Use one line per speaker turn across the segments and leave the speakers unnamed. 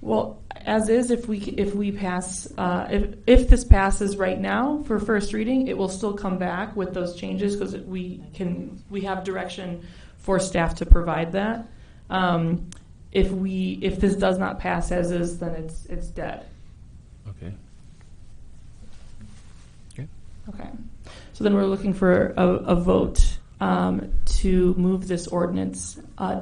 Well, as is, if we, if we pass, uh, if, if this passes right now for first reading, it will still come back with those changes because we can, we have direction for staff to provide that. Um, If we, if this does not pass as is, then it's, it's dead.
Okay.
Okay. So then we're looking for a, a vote um, to move this ordinance uh,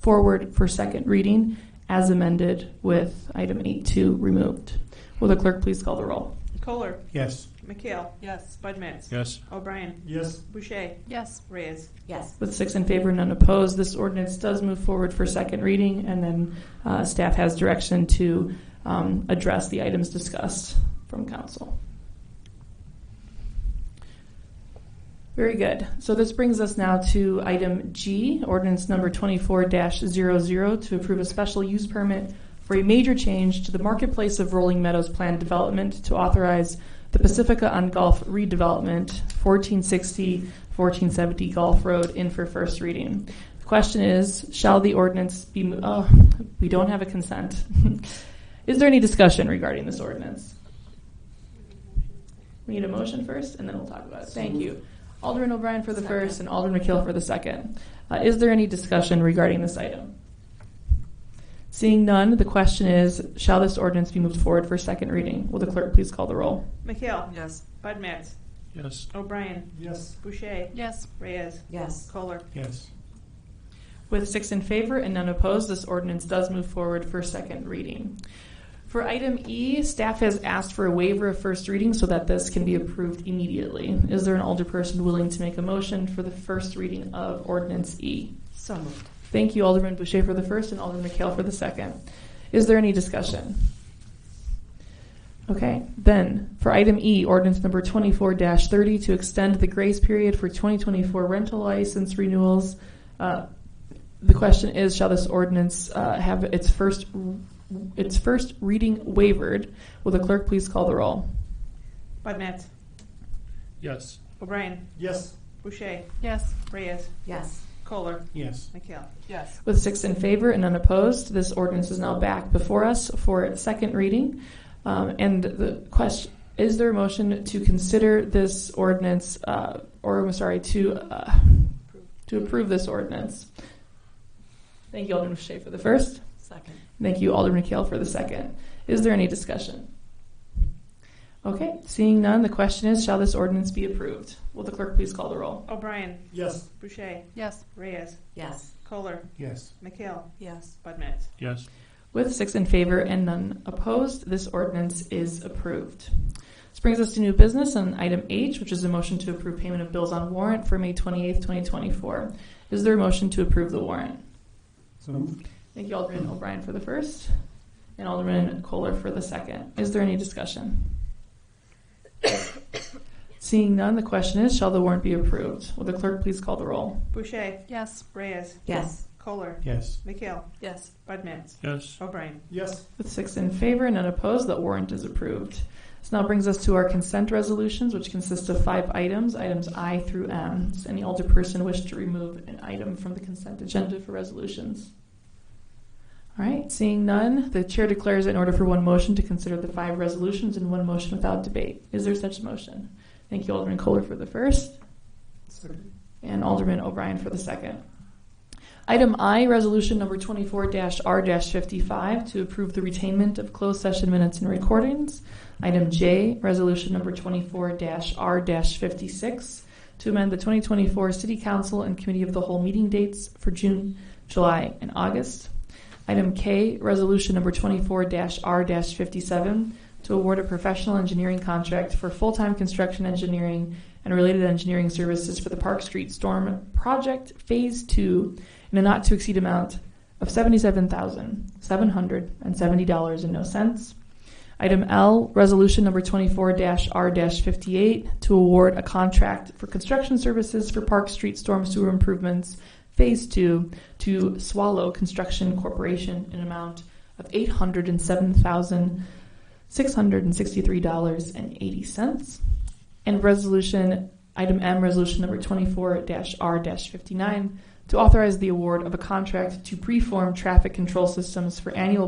forward for second reading as amended with item 8.2 removed. Will the clerk please call the roll?
Kohler.
Yes.
McHale. Yes. Bud Matts.
Yes.
O'Brien.
Yes.
Boucher.
Yes.
Reyes.
Yes.
With six in favor, none opposed, this ordinance does move forward for second reading, and then uh, staff has direction to um, address the items discussed from council. Very good. So this brings us now to item G, ordinance number 24-00, to approve a special use permit for a major change to the marketplace of Rolling Meadows planned development to authorize the Pacifica on Golf redevelopment, 1460, 1470 Golf Road, in for first reading. The question is, shall the ordinance be, mo- oh, we don't have a consent. Is there any discussion regarding this ordinance? We need a motion first, and then we'll talk about it. Thank you. Alderman O'Brien for the first and Alderman McKeel for the second. Uh, Is there any discussion regarding this item? Seeing none, the question is, shall this ordinance be moved forward for second reading? Will the clerk please call the roll?
McHale.
Yes.
Bud Matts.
Yes.
O'Brien.
Yes.
Boucher.
Yes.
Reyes.
Yes.
Kohler.
Yes.
With six in favor and none opposed, this ordinance does move forward for second reading. For item E, staff has asked for a waiver of first reading so that this can be approved immediately. Is there an older person willing to make a motion for the first reading of ordinance E?
So moved.
Thank you, Alderman Boucher for the first and Alderman McHale for the second. Is there any discussion? Okay, then, for item E, ordinance number twenty-four thirty, to extend the grace period for twenty twenty-four rental license renewals. Uh, The question is, shall this ordinance uh, have its first, its first reading waived? Will the clerk please call the roll?
Bud Matts.
Yes.
O'Brien.
Yes.
Boucher.
Yes.
Reyes.
Yes.
Kohler.
Yes.
McHale.
Yes.
With six in favor and unopposed, this ordinance is now back before us for its second reading. Um, and the question is there a motion to consider this ordinance, uh, or I'm sorry, to uh, to approve this ordinance? Thank you, Alderman Shea for the first.
Second.
Thank you, Alderman Kale for the second. Is there any discussion? Okay, seeing none, the question is, shall this ordinance be approved? Will the clerk please call the roll?
O'Brien.
Yes.
Boucher.
Yes.
Reyes.
Yes.
Kohler.
Yes.
McHale.
Yes.
Bud Matts.
Yes.
With six in favor and none opposed, this ordinance is approved. This brings us to new business on item H, which is a motion to approve payment of bills on warrant for May 28th, 2024. Is there a motion to approve the warrant?
So moved.
Thank you, Alderman O'Brien for the first, and Alderman Kohler for the second. Is there any discussion? Seeing none, the question is, shall the warrant be approved? Will the clerk please call the roll?
Boucher.
Yes.
Reyes.
Yes.
Kohler.
Yes.
McHale.
Yes.
Bud Matts.
Yes.
O'Brien.
Yes.
With six in favor and none opposed, that warrant is approved. This now brings us to our consent resolutions, which consist of five items, items I through M. Does any alder person wish to remove an item from the consent agenda for resolutions? All right, seeing none, the chair declares in order for one motion to consider the five resolutions in one motion without debate. Is there such a motion? Thank you, Alderman Kohler for the first.
Second.
And Alderman O'Brien for the second. Item I, Resolution Number 24-R-55, to approve the retainment of closed session minutes and recordings. Item J, Resolution Number 24-R-56, to amend the 2024 City Council and Committee of the Whole meeting dates for June, July, and August. Item K, Resolution Number 24-R-57, to award a professional engineering contract for full-time construction engineering and related engineering services for the Park Street Storm Project Phase Two in a not-to-exceed amount of seventy-seven thousand, seven hundred and seventy dollars and no cents. Item L, Resolution Number twenty-four R fifty-eight, to award a contract for construction services for Park Street Storm Sewer Improvements Phase Two to Swallow Construction Corporation in an amount of eight hundred and seven thousand, six hundred and sixty-three dollars and eighty cents. And resolution, item M, resolution number twenty-four R fifty-nine, to authorize the award of a contract to preform traffic control systems for annual